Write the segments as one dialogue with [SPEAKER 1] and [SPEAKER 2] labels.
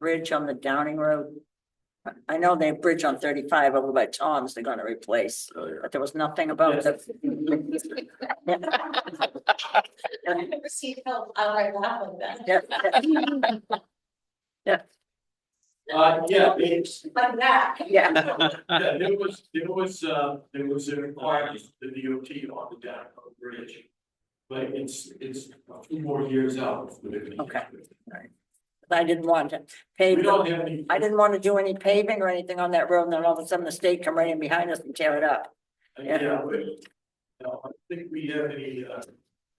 [SPEAKER 1] bridge on the Downing Road? I- I know they have bridge on thirty-five over by Tom's they're gonna replace,
[SPEAKER 2] Oh, yeah.
[SPEAKER 1] but there was nothing about the.
[SPEAKER 3] I've never seen help, I like laugh at that.
[SPEAKER 1] Yeah, yeah,
[SPEAKER 2] Uh, yeah, it's,
[SPEAKER 3] Like that.
[SPEAKER 1] Yeah,
[SPEAKER 2] yeah, there was, there was, uh, there was a requirement, the DOT on the down bridge. But it's, it's a few more years out.
[SPEAKER 1] Okay. I didn't want to
[SPEAKER 2] We
[SPEAKER 1] pave,
[SPEAKER 2] don't have any.
[SPEAKER 1] I didn't want to do any paving or anything on that road, and then all of a sudden the state come right in behind us and tear it up. yeah.
[SPEAKER 2] Yeah, we- no, I don't think we have any, uh,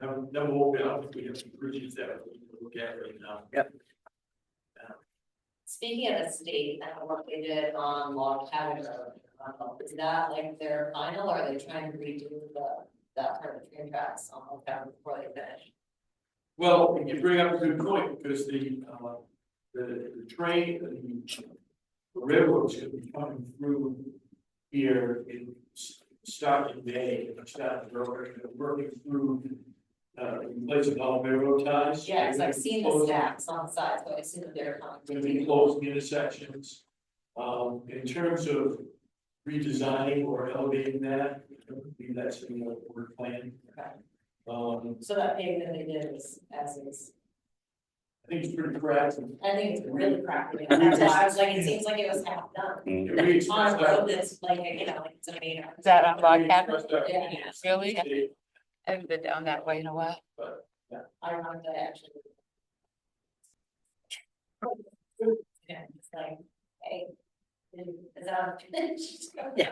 [SPEAKER 2] no, no, I don't think we have some bridges that we can look at right now.
[SPEAKER 3] Speaking of the state, that work they did on Log Cabin Road, um, is that like their final, or are they trying to redo the, that part of the train tracks on Log Cabin before they finish?
[SPEAKER 2] Well, you bring up a good point, because the, uh, the, the train, the railroad's gonna be coming through here in, s- starting May, and starting, working, working through, uh, in place of all railroad ties.
[SPEAKER 3] Yeah, because I've seen the
[SPEAKER 2] Closing-
[SPEAKER 3] stacks on the sides, but I assume that they're
[SPEAKER 2] gonna be
[SPEAKER 3] coming.
[SPEAKER 2] closing intersections. Um, in terms of redesigning or elevating that, I believe that's in the work plan.
[SPEAKER 3] Okay.
[SPEAKER 2] Um,
[SPEAKER 3] So that pavement they did is, as is,
[SPEAKER 2] I think it's pretty correct.
[SPEAKER 3] I think it's really crappy, and that's why I was like, it seems like it was half done.
[SPEAKER 2] If we
[SPEAKER 3] On
[SPEAKER 2] express
[SPEAKER 3] a
[SPEAKER 2] that-
[SPEAKER 3] road that's like, you know, like it's a main.
[SPEAKER 4] Is that on
[SPEAKER 2] if we
[SPEAKER 4] Log
[SPEAKER 2] express
[SPEAKER 4] Cabin?
[SPEAKER 2] that-
[SPEAKER 3] Yeah,
[SPEAKER 4] Really? I haven't been down that way in a while.
[SPEAKER 3] I don't know if that actually. Yeah, it's like, hey, is that?
[SPEAKER 1] Yeah.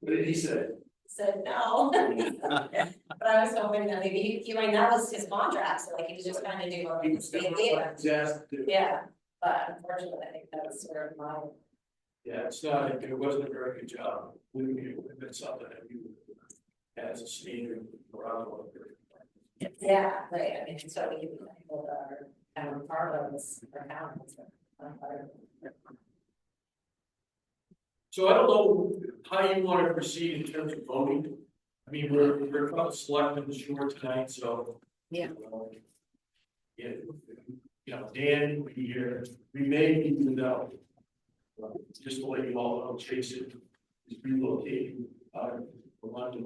[SPEAKER 2] What did he say?
[SPEAKER 3] Said no. But I was hoping that maybe he, he, like, that was his contract, so like he was just kind of doing what he was being given.
[SPEAKER 2] He's asked to-
[SPEAKER 3] Yeah, but unfortunately, I think that was sort of my,
[SPEAKER 2] Yeah, it's not, it wasn't a very good job. We, we, it's something that you, as a standard, probably.
[SPEAKER 3] yeah, right, I mean, so we, people that are, um, part of this, or now, it's, um, part of-
[SPEAKER 2] So I don't know how you want to proceed in terms of voting. I mean, we're, we're about selecting the shore tonight, so.
[SPEAKER 4] Yeah.
[SPEAKER 2] um, Yeah, you know, Dan will be here, we may need to know. uh, Just to let you all know, Jason is relocating, uh, from London.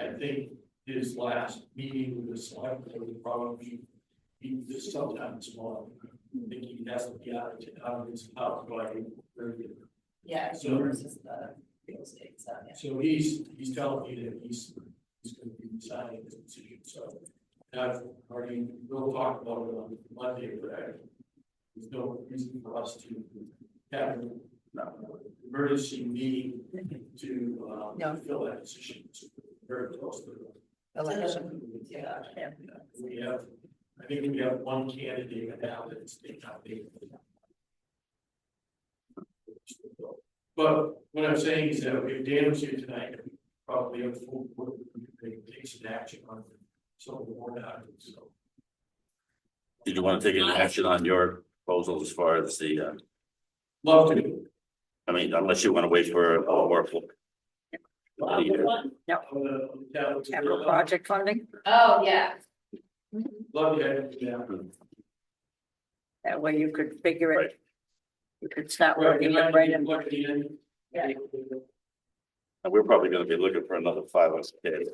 [SPEAKER 2] I think his last meeting with the select, board will probably be this sometime tomorrow. I think he has to be out of, out of his house by early.
[SPEAKER 3] yeah,
[SPEAKER 2] So-
[SPEAKER 3] versus the real estate, so, yeah.
[SPEAKER 2] So he's, he's telling me that he's, he's gonna be deciding this decision, so. And I've already, we'll talk about it on Monday, but I, there's no reason for us to have an emergency meeting to, um,
[SPEAKER 4] No.
[SPEAKER 2] fill that decision. It's Very close to. Mm.
[SPEAKER 4] Election.
[SPEAKER 3] Yeah.
[SPEAKER 1] Yeah.
[SPEAKER 2] We have, I think we have one candidate now that's been nominated. But what I'm saying is that if Dan was here tonight, we probably have full board, we could take some action on some of the board items, so.
[SPEAKER 5] Did you want to take any action on your proposal as far as the, uh,
[SPEAKER 2] Love to.
[SPEAKER 5] I mean, unless you want to wait for uh, a work.
[SPEAKER 2] On the- on the town-
[SPEAKER 1] Capital project funding,
[SPEAKER 3] Oh, yeah,
[SPEAKER 2] Love to have you down.
[SPEAKER 1] that way you could figure it. You could start
[SPEAKER 2] Well,
[SPEAKER 1] working
[SPEAKER 2] good
[SPEAKER 1] it
[SPEAKER 2] night,
[SPEAKER 1] right
[SPEAKER 2] good
[SPEAKER 1] in.
[SPEAKER 2] luck at the end.
[SPEAKER 3] Yeah.
[SPEAKER 5] And uh, we're probably going to be looking for another five hundred K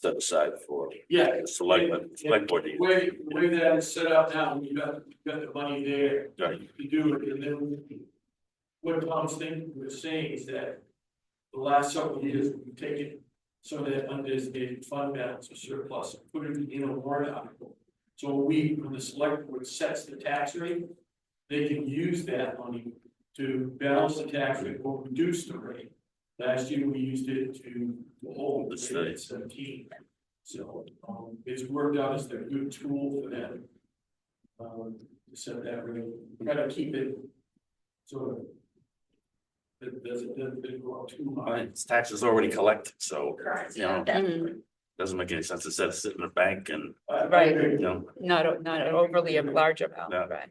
[SPEAKER 5] set aside for
[SPEAKER 2] Yeah,
[SPEAKER 5] the selectmen, select board.
[SPEAKER 2] The way, the way that is set up now, you got, you got the money there.
[SPEAKER 5] Right.
[SPEAKER 2] You do it, and then what Tom's thing was saying is that the last several years, we've taken some of that undesignated fund balance or surplus, and put it in a warrant article. So we, when the select board sets the tax rate, they can use that money to balance the tax rate or reduce the rate. Last year, we used it to hold the rate at seventeen. So, um, it's worked out as their good tool for them. Um, to set that rate, We gotta keep it sort of. It doesn't, doesn't go up too
[SPEAKER 5] All right,
[SPEAKER 2] high.
[SPEAKER 5] it's Taxes already collected, so
[SPEAKER 3] correct,
[SPEAKER 5] You know.
[SPEAKER 3] yeah.
[SPEAKER 4] Mm,
[SPEAKER 5] doesn't make any sense to set it sit in a bank and,
[SPEAKER 2] I- I
[SPEAKER 4] Right.
[SPEAKER 2] agree.
[SPEAKER 5] you know,
[SPEAKER 4] Not, a- not an overly a large amount,
[SPEAKER 5] No.
[SPEAKER 4] right?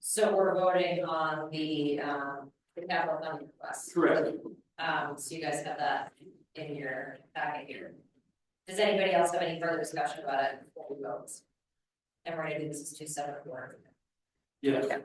[SPEAKER 3] So we're voting on the, um, the capital funding request.
[SPEAKER 2] Correct.
[SPEAKER 3] Um, so you guys have that in your packet here. Does anybody else have any further discussion about it before we vote? And we're gonna do this as two separate work.
[SPEAKER 2] Yes.